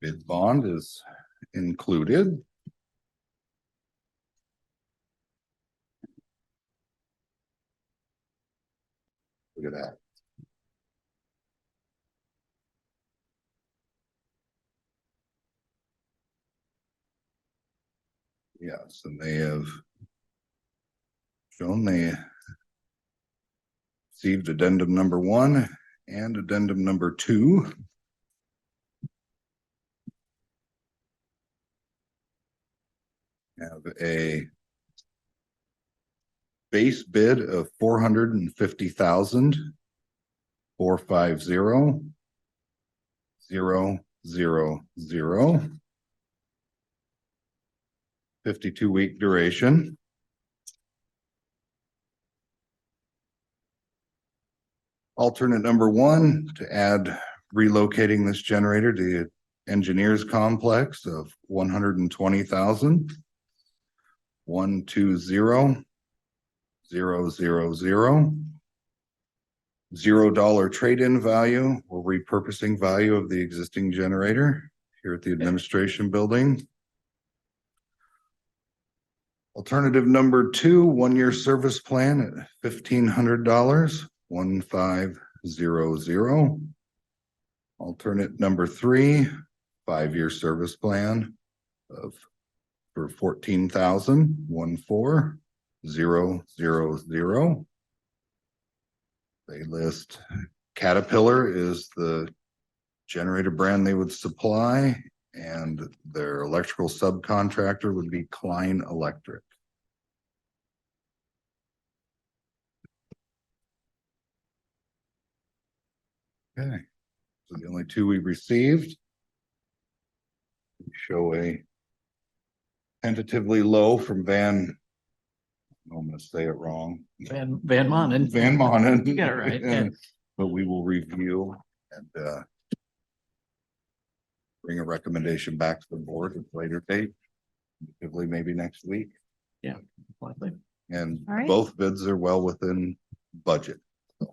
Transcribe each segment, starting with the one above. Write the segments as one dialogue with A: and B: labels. A: Bid bond is included. Look at that. Yes, and they have shown they received addendum number one and addendum number two. Have a base bid of four hundred and fifty thousand four five zero zero zero zero fifty-two week duration. Alternate number one, to add relocating this generator to the engineers complex of one hundred and twenty thousand. One, two, zero, zero, zero, zero. Zero dollar trade-in value or repurposing value of the existing generator here at the administration building. Alternative number two, one-year service plan at fifteen hundred dollars, one five zero zero. Alternate number three, five-year service plan of for fourteen thousand, one four zero zero zero. They list Caterpillar is the generator brand they would supply and their electrical subcontractor would be Klein Electric. Okay, so the only two we received. Show a tentatively low from Van. I'm gonna say it wrong.
B: Van, Van Monen.
A: Van Monen.
B: You got it right, yeah.
A: But we will review and uh. Bring a recommendation back to the board at a later date, probably maybe next week,
B: Likely.
A: and
C: All right.
A: both bids are well within budget,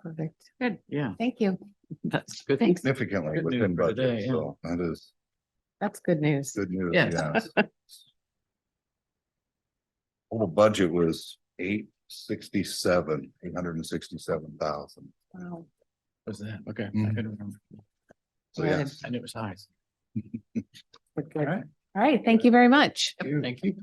C: Perfect. Good.
B: Yeah,
C: Thank you.
B: that's good.
C: Thanks.
A: significantly
B: Good news
A: within
B: for today,
A: budget,
B: yeah.
A: so that is
C: That's good news.
A: good news,
B: Yes.
A: yes. Total budget was eight sixty-seven, eight hundred and sixty-seven thousand,
C: Wow.
B: Was that, okay. I
A: Mm.
B: couldn't remember.
A: so
C: Good.
A: yes.
B: I knew it was high.
C: Good,
A: All
C: good.
A: right.
C: All right. Thank you very much.
A: Thank you.
B: Thank you.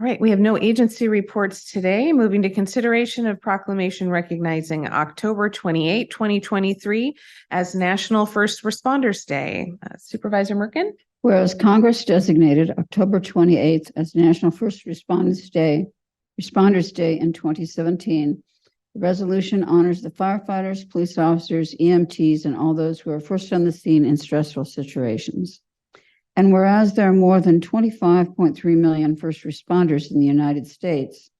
C: All right. We have no agency reports today. Moving to consideration of proclamation recognizing October 28, 2023 as National First Responders Day. Uh, Supervisor Merkin?
D: Whereas Congress designated October twenty-eighth as National First Responders Day, Responders Day in twenty seventeen, the resolution honors the firefighters, police officers, EMTs, and all those who are first on the scene in stressful situations. And whereas there are more than 25.3 million first responders in the United States,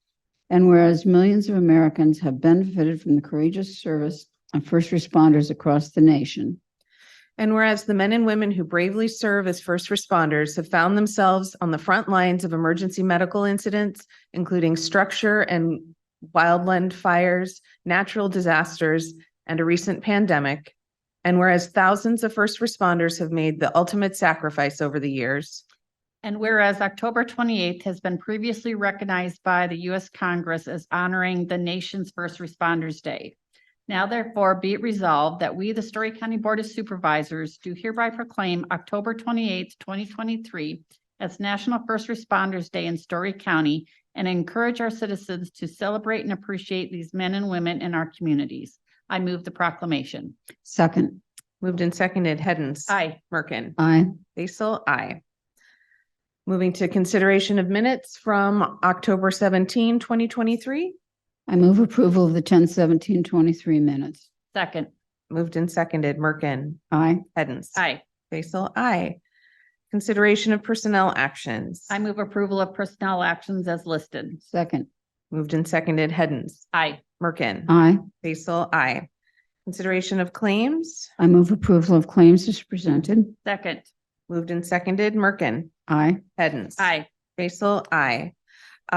D: and whereas millions of Americans have benefited from the courageous service of first responders across the nation,
C: And whereas the men and women who bravely serve as first responders have found themselves on the front lines of emergency medical incidents, including structure and wildland fires, natural disasters, and a recent pandemic. And whereas thousands of first responders have made the ultimate sacrifice over the years.
E: And whereas October twenty-eighth has been previously recognized by the U.S. Congress as honoring the nation's First Responders Day. Now therefore be it resolved that we, the Story County Board of Supervisors, do hereby proclaim October twenty-eighth, twenty twenty-three as National First Responders Day in Story County and encourage our citizens to celebrate and appreciate these men and women in our communities. I move the proclamation.
D: second,
C: Moved and seconded, Hens.
E: Aye.
C: Merkin.
D: I.
C: Basil, I. Moving to consideration of minutes from October 17, 2023.
D: I move approval of the ten seventeen twenty-three minutes.
E: Second.
C: Moved and seconded, Merkin.
D: Aye.
C: Hens.
E: Aye.
C: Basil, I. Consideration of personnel actions.
E: I move approval of personnel actions as listed.
D: Second.
C: Moved and seconded, Hens.
E: Aye.
C: Merkin.
D: Aye.
C: Basil, I. Consideration of claims.
D: I move approval of claims as presented.
E: Second.
C: Moved and seconded, Merkin.
D: Aye.
C: Hens.
E: Aye.
C: Basil, I.